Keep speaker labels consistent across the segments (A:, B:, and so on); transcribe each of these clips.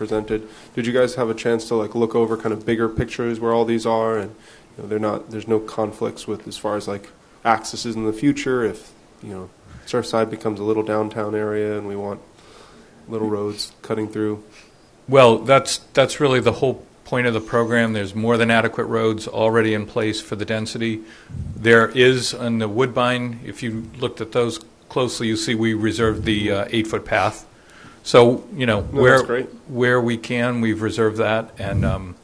A: presented. Did you guys have a chance to like look over kind of bigger pictures where all these are and you know, they're not there's no conflicts with as far as like accesses in the future if you know Surfside becomes a little downtown area and we want little roads cutting through.
B: Well, that's, that's really the whole point of the program. There's more than adequate roads already in place for the density. There is on the Woodbine, if you looked at those closely, you see we reserved the uh, eight-foot path. So, you know,
A: No,
B: where,
A: that's great.
B: where we can, we've reserved that. And, um,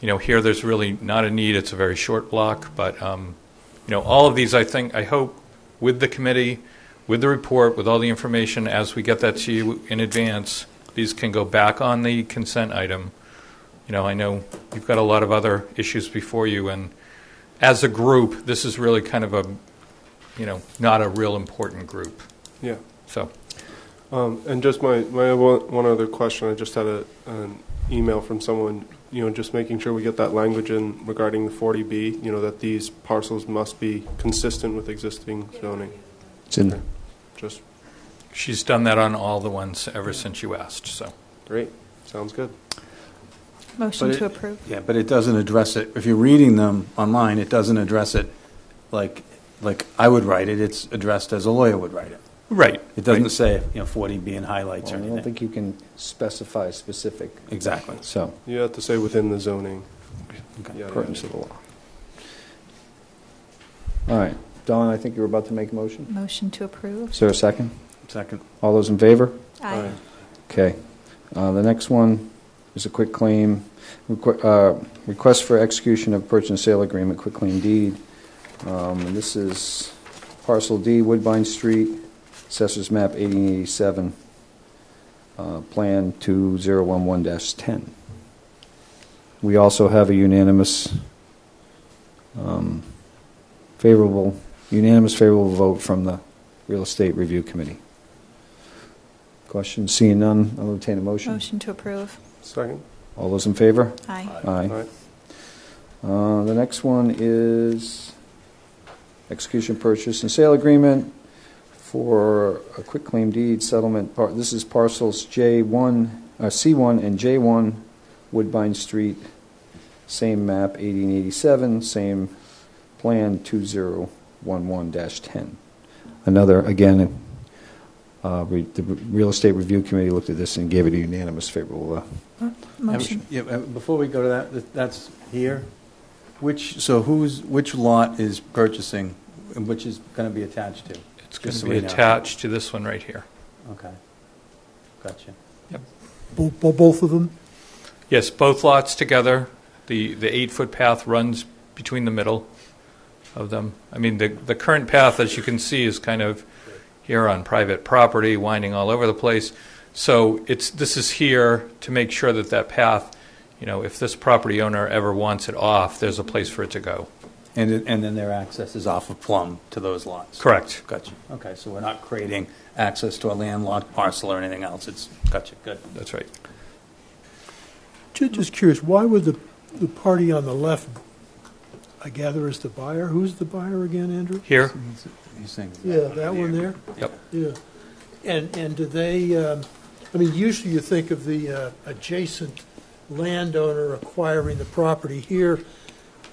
B: you know, here, there's really not a need. It's a very short block. But, um, you know, all of these, I think, I hope, with the committee, with the report, with all the information, as we get that to you in advance, these can go back on the consent item. You know, I know you've got a lot of other issues before you, and as a group, this is really kind of a, you know, not a real important group.
A: Yeah.
B: So,
A: Um, and just my, my one, one other question, I just had a, an email from someone, you know, just making sure we get that language in regarding the 40B, you know, that these parcels must be consistent with existing zoning.
C: It's in there.
A: Just
B: she's done that on all the ones ever since you asked, so.
A: great. Sounds good.
D: Motion
E: But it-
D: to approve.
E: Yeah, but it doesn't address it. If you're reading them online, it doesn't address it like, like I would write it. It's addressed as a lawyer would write it.
B: Right.
E: It doesn't say, you know, 40B in highlights or
C: I don't
E: anything.
C: think you can specify specific,
E: Exactly.
C: so,
A: You have to say within the zoning.
E: Okay.
A: Yada,
C: pertinence
A: yada.
C: of the law. All right, Don, I think you were about to make a motion.
D: Motion to approve.
C: Is there a second?
E: Second.
C: All those in favor?
D: Aye.
C: Okay. Uh, The next one is a quick claim, requ- uh, request for execution of purchase and sale agreement, quick claim deed. Um, and This is parcel D, Woodbine Street, Assessors Map 1887, uh, Plan 2011-10. We also have a unanimous, um, favorable, unanimous favorable vote from the Real Estate Review Committee. Questions? Seeing none, I'll entertain a motion.
D: Motion to approve.
A: Second?
C: All those in favor?
D: Aye.
C: Aye.
A: Aye.
C: Uh, The next one is execution purchase and sale agreement for a quitclaim deed settlement. par- This is parcels J1, uh, C1 and J1, Woodbine Street, same map, 1887, same plan, 2011-10. Another, again, uh, re- the Real Estate Review Committee looked at this and gave it a unanimous favorable uh,
D: Motion.
E: Yeah, uh, Before we go to that, that, that's here. Which, so who's, which lot is purchasing, and which is going to be attached to?
B: It's going to
E: Just so
B: be
E: we know.
B: attached to this one right here.
E: Okay. Gotcha.
F: Bo- bo- Both of them?
B: Yes, both lots together. The, the eight-foot path runs between the middle of them. I mean, the, the current path, as you can see, is kind of here on private property, winding all over the place. So it's, this is here to make sure that that path, you know, if this property owner ever wants it off, there's a place for it to go.
E: And, it- and then their access is off of Plum to those lots?
B: Correct.
E: Gotcha. Okay, so we're not creating access to a landlocked parcel or anything else. It's, gotcha, good.
B: That's right.
F: Ju- Just curious, why would the, the party on the left, I gather is the buyer? Who's the buyer again, Andrew?
B: Here?
E: He's saying-
F: Yeah, that one there?
B: Yep.
F: Yeah. And, and do they, um, I mean, usually you think of the uh, adjacent landowner acquiring the property here,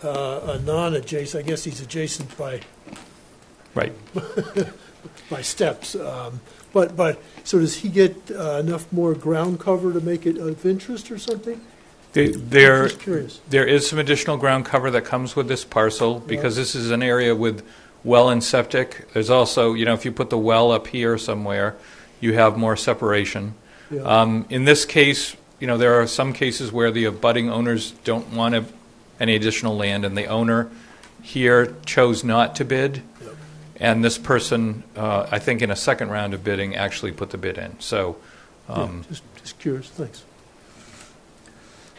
F: uh, a non-adjacent, I guess he's adjacent by,
B: Right.
F: by steps. um, But, but, so does he get uh, enough more ground cover to make it of interest or something?
B: They- They're,
F: Just curious.
B: There is some additional ground cover that comes with this parcel, because this is an area with well and septic. There's also, you know, if you put the well up here somewhere, you have more separation.
F: Yeah.
B: Um, In this case, you know, there are some cases where the abutting owners don't want to- any additional land, and the owner here chose not to bid, and this person, uh, I think in a second round of bidding, actually put the bid in. So,
F: Yeah,
B: um,
F: Just, just curious, thanks.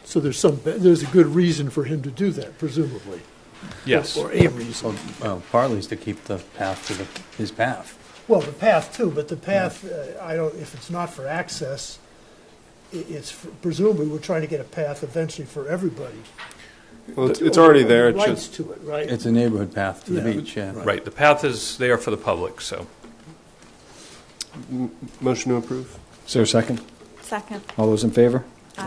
F: So there's some, there's a good reason for him to do that, presumably?
B: yes.
F: Or a reason.
E: Well, partly is to keep the path to the, his path.
F: Well, the path too, but the path, uh, I don't, if it's not for access, i- it's for- presumably, we're trying to get a path eventually for everybody.
A: Well, it's, it's already there. It's
F: Rights
A: just,
F: to it, right?
E: It's a neighborhood path to the
F: Yeah.
E: beach, yeah.
B: Right, the path is there for the public, so.
A: motion to approve?
C: Is there a second?
D: Second.
C: All those in favor?